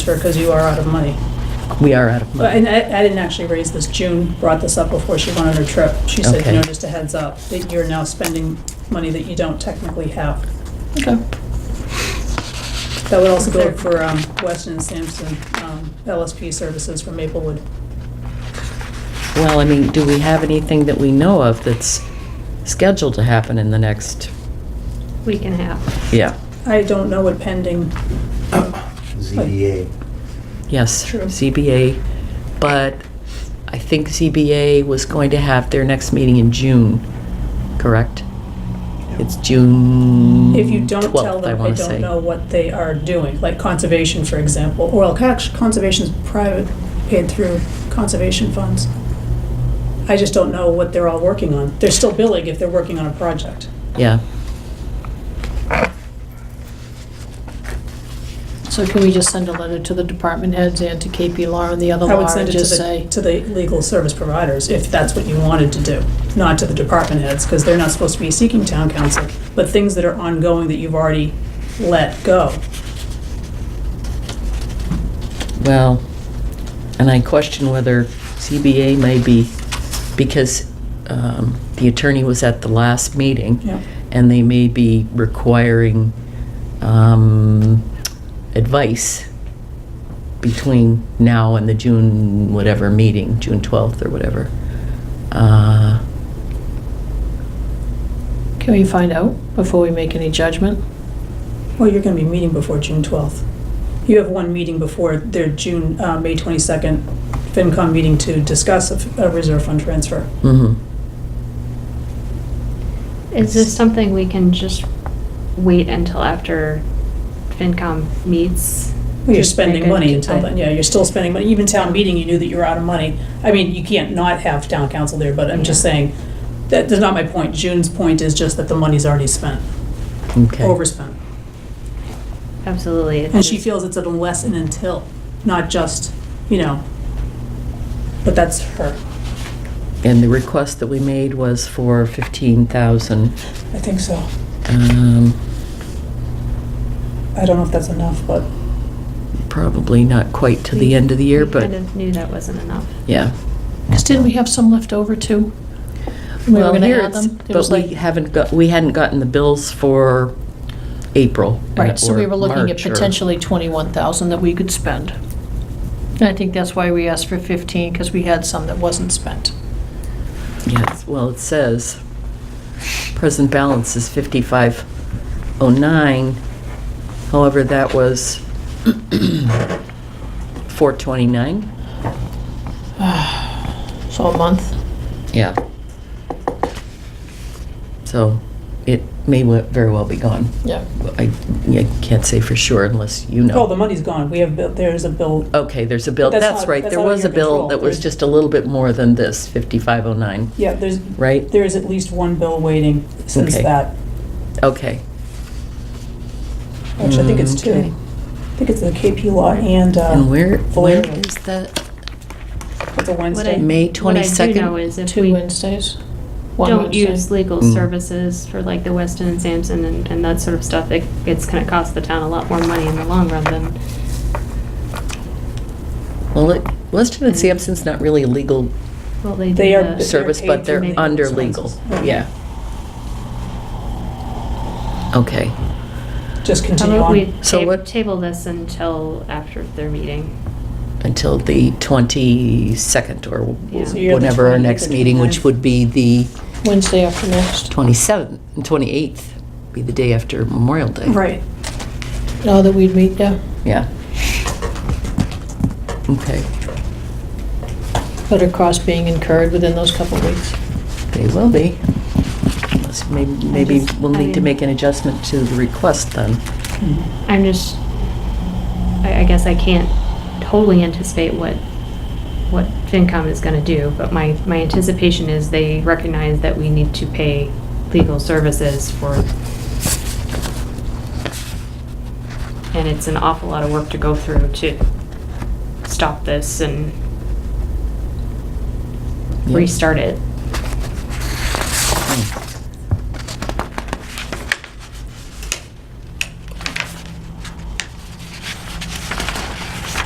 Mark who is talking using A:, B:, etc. A: Sure, because you are out of money.
B: We are out of
A: But, and
B: money.
A: I, I didn't actually raise this, June brought this up before she went on her trip. She said, you
B: Okay.
A: know, just a heads up, that you're now spending money that you don't technically have.
B: Okay.
A: That would also go for, um, Weston and Sampson, um, LSP services for Maplewood.
B: Well, I mean, do we have anything that we know of that's scheduled to happen in the next,
C: week and a half.
B: yeah,
A: I don't know what pending,
D: ZBA.
B: yes,
A: True.
B: ZBA. But I think ZBA was going to have their next meeting in June, correct? It's June
A: if you don't tell
B: 12th, Hmm. I
A: them, I
B: want to
A: don't
B: say.
A: know what they are doing, like conservation, for example. Well, actually, conservation's private, paid through conservation funds. I just don't know what they're all working on. They're still billing if they're working on a project.
B: Yeah,
E: So can we just send a letter to the department heads and to KP Law and the other
A: I would
E: law
A: send
E: and
A: it to
E: just
A: the,
E: say,
A: to the legal service providers, if that's what you wanted to do, not to the department heads, because they're not supposed to be seeking town council, but things that are ongoing that you've already let go.
B: well, and I question whether ZBA may be, because um, the attorney was at the last meeting.
A: Yeah.
B: and they may be requiring um, advice between now and the June whatever meeting, June 12th or whatever. Uh,
E: can we find out before we make any judgment?
A: Well, you're gonna be meeting before June twelfth. You have one meeting before their June, uh, May twenty-second FinCom meeting to discuss a f- a reserve fund transfer.
B: mhm.
C: Is this something we can just wait until after FinCom meets?
A: You're
C: Just make
A: spending
C: a-
A: money until then,
C: I-
A: yeah, you're still spending money, even town meeting, you knew that you were out of money. I mean, you can't not have town council there, but I'm just
C: Yeah.
A: saying, that, that's not my point, June's point is just that the money's already spent,
B: Okay.
A: overspent.
C: Absolutely. it's
A: And she
C: just-
A: feels it's an unless and until, not just, you know, but that's her,
B: And the request that we made was for 15,000.
A: I think so.
B: um,
A: I don't know if that's enough, but.
B: Probably not quite to
C: we-
B: the end of the year,
C: we Kind
B: but,
C: of knew that wasn't enough.
B: yeah.
E: Because didn't we have some left over too? We were
B: Well,
E: gonna
B: here
E: add
B: it's-
E: them. It
B: But
E: was
B: we
E: like,
B: haven't got, we hadn't gotten the bills for April.
E: right, so
B: or
E: we were looking at
B: March or-
E: potentially 21,000 that we could spend. And I think that's why we asked for 15, because we had some that wasn't spent.
B: Yes, well, it says, present balance is 5509. However, that was 429.
E: So a month.
B: Yeah. So it may we- very well be gone.
E: Yeah.
B: I I can't say for sure unless you
A: Oh, the
B: know.
A: money's gone. We have, bill- there's a bill.
B: Okay, there's a bill,
A: But that's
B: that's
A: not-
B: right,
A: that's
B: there
A: out of
B: was a
A: your
B: bill
A: control.
B: that was
A: There's-
B: just a little bit more than this, 5509,
A: Yeah, there's,
B: right?
A: there is at least one bill waiting since
B: Okay.
A: that.
B: Okay.
A: Actually, I think it's two.
B: Mm, Okay.
A: I think it's the KP law and,
B: And
A: uh,
B: where, where
A: Valeria.
B: is that?
A: it's a
C: What
A: Wednesday.
C: I-
B: May
C: What I do
B: 22nd?
C: know is if
E: Two
C: we
E: Wednesdays? One
C: don't
E: Wednesday.
C: use legal
B: Mm.
C: services for like the Weston and Sampson and, and that sort of stuff, it, it's gonna cost the town a lot more money in the long run than,
B: Well, it- Weston and
A: Mm-hmm.
B: Sampson's not really a legal
C: well, they do
A: They are-
C: the-
B: service, but
A: paid
B: they're
C: through legal
B: under legal,
A: expenses.
B: yeah. Okay,
A: Just
C: How
A: continue
C: about we
A: on.
B: So
C: ta-
B: what-
C: table this until after their meeting?
B: until the 22nd or
C: Yeah. So
A: you're the
B: whenever our
A: 28th or
B: next meeting, which
A: 29th?
B: would be the
E: Wednesday after next.
B: 27th, and 28th, be the day after Memorial Day.
A: Right.
E: Oh, that we'd meet, yeah.
B: Yeah. Okay,
E: But are costs being incurred within those couple of weeks?
B: they will be. Unless Maybe, maybe
C: just-
B: we'll
C: I
B: need to
C: mean-
B: make an adjustment to the request then.
A: Mm-hmm.
C: I'm just, I, I guess I can't totally anticipate what, what FinCom is gonna do, but my, my anticipation is they recognize that we need to pay legal services for, and it's an awful lot of work to go through to stop this and
B: Yeah.
C: restart it.
B: Hmm.